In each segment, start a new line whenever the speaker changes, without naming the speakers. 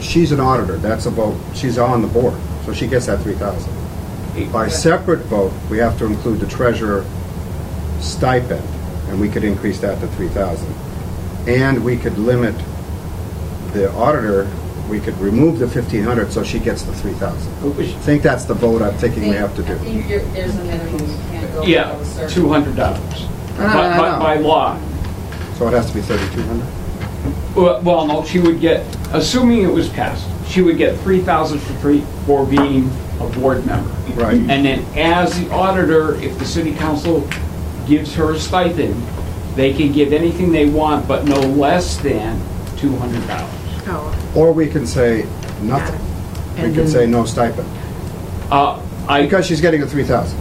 she's an auditor, that's about, she's on the board, so she gets that three thousand. By separate vote, we have to include the treasurer stipend, and we could increase that to three thousand. And we could limit the auditor, we could remove the fifteen hundred, so she gets the three thousand. I think that's the vote I'm thinking we have to
I
do.
think you're- there's a minimum you can't go
Yeah,
below a certain.
two hundred dollars.
No, no, no, no.
By law.
So it has to be thirty-two hundred?
Well, well, no, she would get, assuming it was passed, she would get three thousand for three, for being a board member.
Right.
And then as the auditor, if the city council gives her a stipend, they can give anything they want, but no less than two hundred dollars.
Oh,
Or we can say nothing. We
And
can
then-
say no stipend,
Uh, I,
because she's getting the three thousand.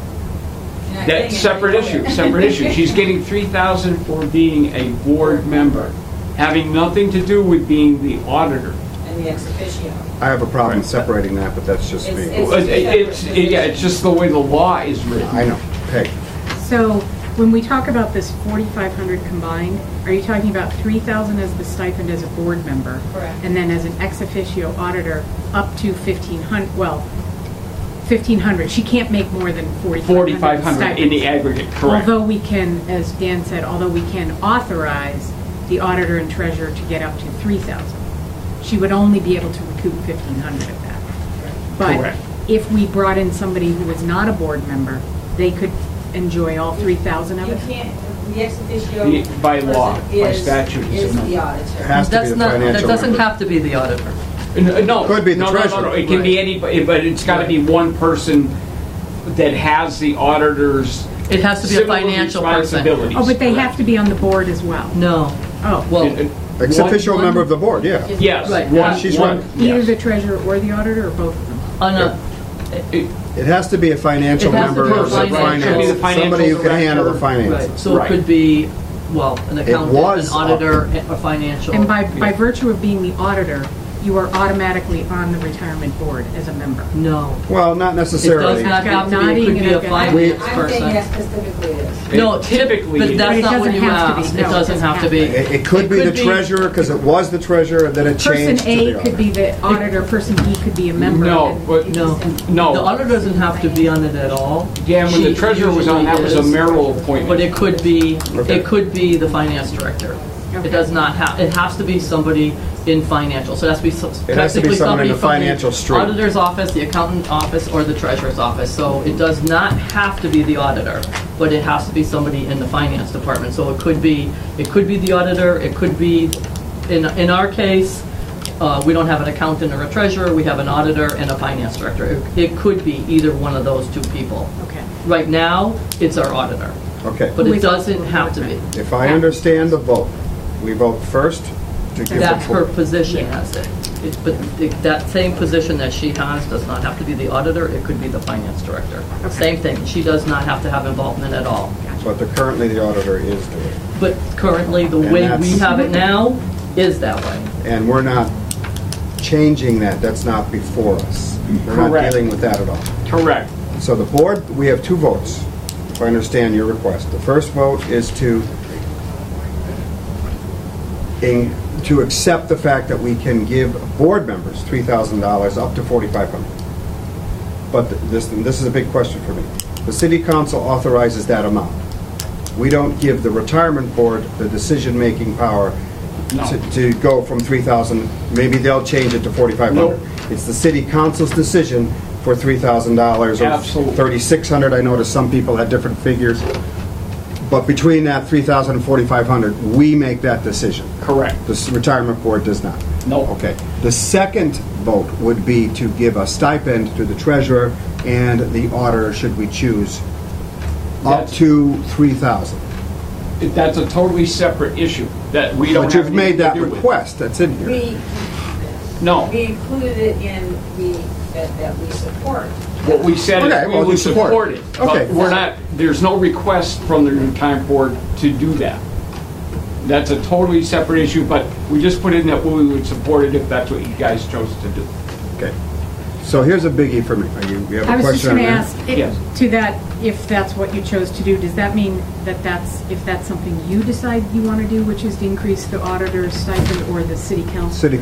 You're not getting
that's
it.
separate issue, separate issue. She's getting three thousand for being a board member, having nothing to do with being the auditor.
And the ex officio.
I have a problem separating that, but that's just
It's-
me.
it's-
Well, it- It's, it- yeah, it's just the way the law is written.
I know, Peg.
so when we talk about this 4,500 combined, are you talking about 3,000 as the stipend as a board member?
Correct.
And then as an ex officio auditor, up to 1,500, well, 1,500, she can't make more than 4,500
4,500 in the
stipends.
aggregate, correct.
Although we can, as Dan said, although we can authorize the auditor and treasurer to get up to 3,000, she would only be able to recoup 1,500 of that. But
Correct.
if we brought in somebody who was not a board member, they could enjoy all 3,000 of
You
it?
can't, the ex
The-
officio.
by law,
person
by
is-
statute, it's
Is
a no.
the
It
auditor.
has to be
That's
the
not, that
financial.
doesn't
member.
have to be the auditor.
N- uh, No.
Could be the
no, no, no,
treasurer.
no, It can be anybody, but it's got to be one person that has the auditor's.
It has to be a
civil
financial person.
responsibilities,
Oh, but they have
correct.
to be on the board as well?
No.
Oh.
It-
Well,
it-
Ex
one-
official member of the board, yeah.
Yes.
Right.
one-
She's
one-
right.
Either
yes.
the treasurer or the auditor, or both of them?
on a,
It-
It has to be a financial
It has to
member
be a
of the
financial-
It
finance,
could be the
somebody who can
financial
handle the
director.
right,
finances.
so
Right.
it could be, well, an accountant, an
was up-
auditor, a financial.
And by, by virtue of being the auditor, you are automatically on the retirement board as a member?
No.
Well, not
It does
necessarily.
not have to
Not
be, it could
even
be a
a-
finance
I'm saying yes,
person.
specifically it is.
No,
It
typically,
typically
but
is.
But it
that's not what
doesn't
you
have to be.
asked. It
No, it
doesn't have to be.
It, it could be the treasurer, because it was the treasurer, and then it
Person
changed to the
A could be
auditor.
the auditor, person B could be a member.
No,
and-
but,
No.
no.
The auditor doesn't have to be on it at all.
Yeah, and when the
She
treasurer was on, that was a
usually is,
marital
But
appointment.
it could be,
Okay.
it could be the finance director. It
Okay.
does not have, it has to be somebody in financial, so it has to be so-
It has to be someone
technically
in
somebody
the
from
financial
the
stream.
auditor's office, the accountant office, or the treasurer's office. So it does not have to be the auditor, but it has to be somebody in the finance department. So it could be, it could be the auditor, it could be, in, in our case, uh, we don't have an accountant or a treasurer, we have an auditor and a finance director. It- It could be either one of those two people.
Okay.
Right now, it's our auditor,
Okay,
but
Who
it
is
doesn't have to be.
if I understand the vote, we vote first to give
That's her
the,
position as it. It- But it- that same position that she has does not have to be the auditor, it could be the finance director. Same thing, she does not have to have involvement at all.
but the- currently the auditor is doing.
But currently, the
And
way we
that's-
have it now is that way.
And we're not changing that, that's not before us. We're not
Correct.
dealing with that at all.
Correct.
So the board, we have two votes, if I understand your request. The first vote is to, in- to accept the fact that we can give board members $3,000 up to 4,500. But this, and this is a big question for me. The city council authorizes that amount. We don't give the retirement board the decision-making power
No.
to to go from 3,000, maybe they'll change it to 4,500.
Nope.
It's the city council's decision for $3,000 or
Absolutely.
3,600, I noticed some people had different figures. But between that 3,000 and 4,500, we make that decision.
Correct.
The s- retirement board does not.
No.
Okay. The second vote would be to give a stipend to the treasurer and the auditor, should we choose, up
That's-
to 3,000.
That's a totally separate issue that we don't
But
have
you've made
anything to
that
do with.
request, that's in here.
We,
No.
we included it in the, that, that we support.
What we said
Okay,
is we
well, you
would
support.
support it.
Okay.
But we're not, there's no request from the retirement board to do that. That's a totally separate issue, but we just put in that we would support it if that's what you guys chose to do.
Okay. So here's a biggie for me. Are you, you
I
have a
was
question
just
on
going
that?
to ask, it-
Yes.
to that, if that's what you chose to do, does that mean that that's, if that's something you decide you want to do, which is to increase the auditor's stipend or the city council?
City